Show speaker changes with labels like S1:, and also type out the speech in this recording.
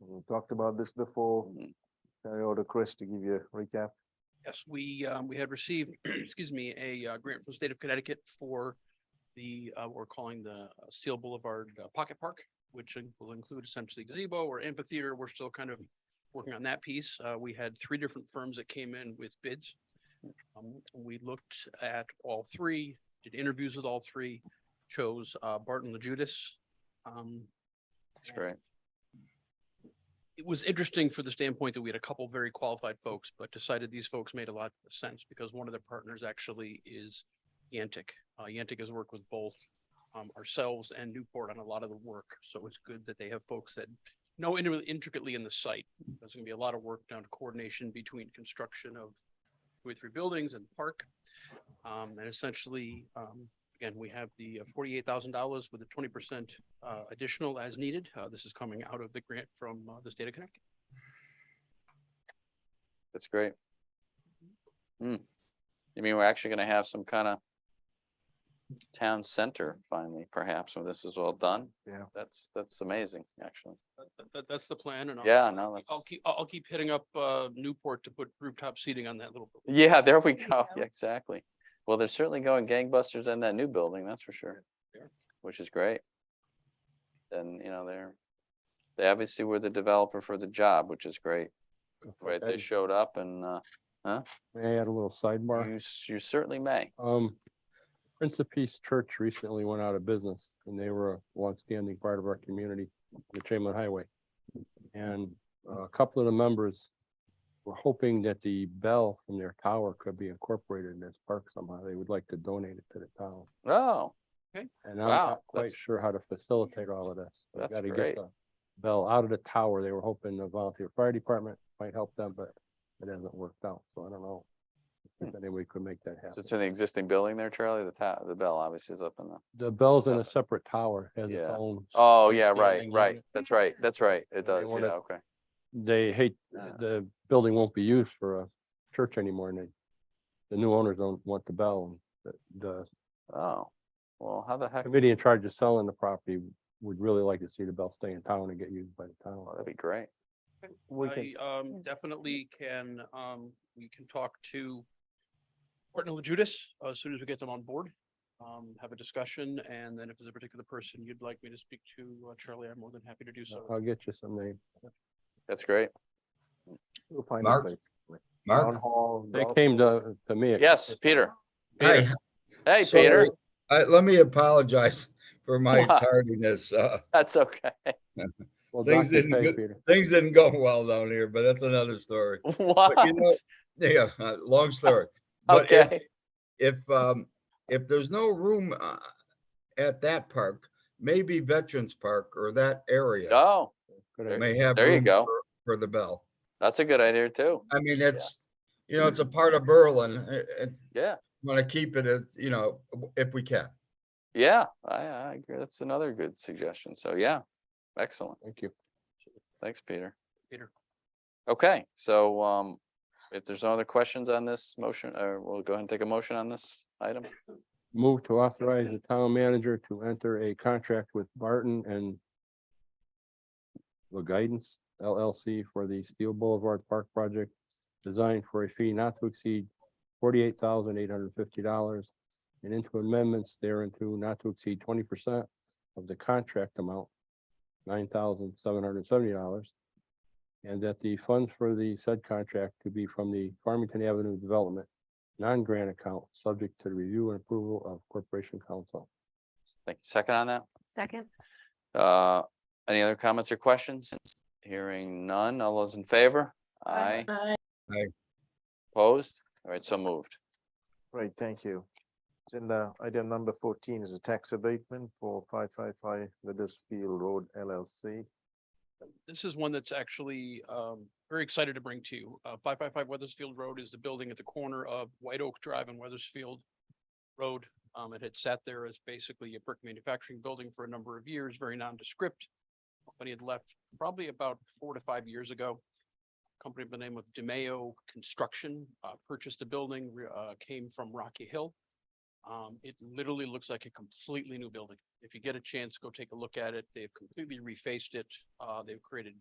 S1: We talked about this before.
S2: Mhm.
S1: Turn it over to Chris to give you a recap.
S2: Yes, we, um, we had received, excuse me, a uh, grant from the state of Connecticut for the, uh, we're calling the uh, Steel Boulevard uh, Pocket Park, which in- will include essentially gazebo or amphitheater. We're still kind of working on that piece. Uh, we had three different firms that came in with bids. Um, we looked at all three, did interviews with all three, chose, uh, Barton La Judas. Um,
S3: That's great.
S2: it was interesting for the standpoint that we had a couple very qualified folks, but decided these folks made a lot of sense because one of their partners actually is Yantic. Uh, Yantic has worked with both um, ourselves and Newport on a lot of the work, so it's good that they have folks that know inter- intricately in the site. There's gonna be a lot of work down to coordination between construction of two or three buildings and park. Um, and essentially, um, again, we have the uh, forty-eight thousand dollars with a twenty percent uh, additional as needed. Uh, this is coming out of the grant from uh, the state of Connecticut.
S3: That's great. Hmm. You mean we're actually gonna have some kind of town center finally, perhaps, when this is all done?
S1: Yeah.
S3: That's, that's amazing, actually.
S2: That- That, that, that's the plan and. I'll-
S3: Yeah, no, Oh.
S2: I'll
S3: that's,
S2: keep, I'll, I'll keep hitting up, uh, Newport to put rooftop seating on that little. building.
S3: yeah, there we
S4: you
S3: go.
S4: go.
S3: Yeah, Exactly. Well, they're certainly going gangbusters in that new building, that's for sure,
S2: There.
S3: which is great. And, you know, they're, they obviously were the developer for the job, which is great, right? They
S5: And
S3: showed up and, uh,
S5: May I add a little sidebar?
S3: you, s- you certainly may.
S5: Um, Prince of Peace Church recently went out of business and they were a longstanding part of our community, on the Chamberlain Highway. And uh, a couple of the members were hoping that the bell from their tower could be incorporated in this park somehow. They would like to donate it to the town.
S3: Oh,
S5: And I'm
S3: Wow,
S5: not quite
S3: that's-
S5: sure how to facilitate all of this. We've
S3: That's
S5: gotta get
S3: great.
S5: the Bell out of the tower. They were hoping the volunteer fire department might help them, but it hasn't worked out. So I don't know. If any way could make
S3: So
S5: that happen.
S3: Hmm. it's in the existing building there, Charlie, the tower, the bell obviously is up in the,
S5: The bell's in
S3: uh,
S5: a separate tower, has its
S3: yeah.
S5: own.
S3: oh, yeah, right,
S5: standing
S3: right,
S5: unit.
S3: that's right, that's right, it
S5: They
S3: does, yeah,
S5: wanna-
S3: okay.
S5: They hate,
S3: Ah.
S5: the building won't be used for a church anymore and they, the new owners don't want the bell. and The,
S3: Oh, well, how the
S5: the
S3: heck,
S5: committee in charge of selling the property would really like to see the bell stay in town and get used by the town.
S3: well, that'd be great,
S5: We
S2: I, um,
S4: Yeah.
S2: definitely can, um, we can talk to Horton and Judas uh, as soon as we get them on board. Um, have a discussion and then if there's a particular person you'd like me to speak to, uh, Charlie, I'm more than happy to do so.
S5: I'll get you some name.
S3: that's great.
S1: We'll find out.
S6: Mark?
S1: later. Town
S6: Mark,
S1: hall.
S5: They
S1: golf-
S5: came to, to me.
S3: Yes, Peter,
S6: hi,
S3: hey,
S6: So-
S3: Peter,
S6: I, let me apologize for my
S3: Why?
S6: tardiness. Uh,
S3: that's okay,
S5: Well,
S6: Things
S5: Dr.
S6: didn't
S5: Fay,
S6: go-
S5: Peter.
S6: things didn't go well down here, but that's another story. But
S3: what,
S6: you know, Yeah, uh, long story. But if,
S3: okay,
S6: if, um, if there's no room, uh, at that park, maybe Veterans Park or that area
S3: oh,
S5: Good
S3: There-
S5: idea.
S6: may have
S3: there you
S6: room
S3: go.
S6: for- For the bell.
S3: that's a good idea too,
S6: I mean, it's, you know, it's a part of Berlin uh, and
S3: yeah,
S6: want to keep it as, you know, if we can.
S3: yeah, I, I agree, that's another good suggestion, so yeah, excellent,
S5: Thank you.
S3: thanks, Peter.
S2: Peter.
S3: Okay, so, um, if there's no other questions on this motion, uh, we'll go ahead and take a motion on this item.
S5: Move to authorize the town manager to enter a contract with Barton and the Guidance LLC for the Steel Boulevard Park Project designed for a fee not to exceed forty-eight thousand eight hundred and fifty dollars and into amendments thereunto not to exceed twenty percent of the contract amount, nine thousand seven hundred and seventy dollars. And that the funds for the said contract to be from the Farmington Avenue Development non-grant account, subject to the review and approval of Corporation Council.
S3: Thank you, second on that?
S4: Second,
S3: Uh, any other comments or questions? Hearing none. All those in favor? Aye.
S6: Aye.
S3: Opposed? All right, so moved.
S1: Great, thank you. It's in the, item number fourteen is a tax abatement for five five five Weathersfield Road LLC.
S2: This is one that's actually um very excited to bring to you. Uh five five five Weathersfield Road is the building at the corner of White Oak Drive and Weathersfield Road. Um, it had sat there as basically a brick manufacturing building for a number of years, very nondescript. Company had left probably about four to five years ago. Company by the name of DeMayo Construction uh purchased the building, re- uh came from Rocky Hill. Um, it literally looks like a completely new building. If you get a chance, go take a look at it. They've completely refaced it. Uh, they've created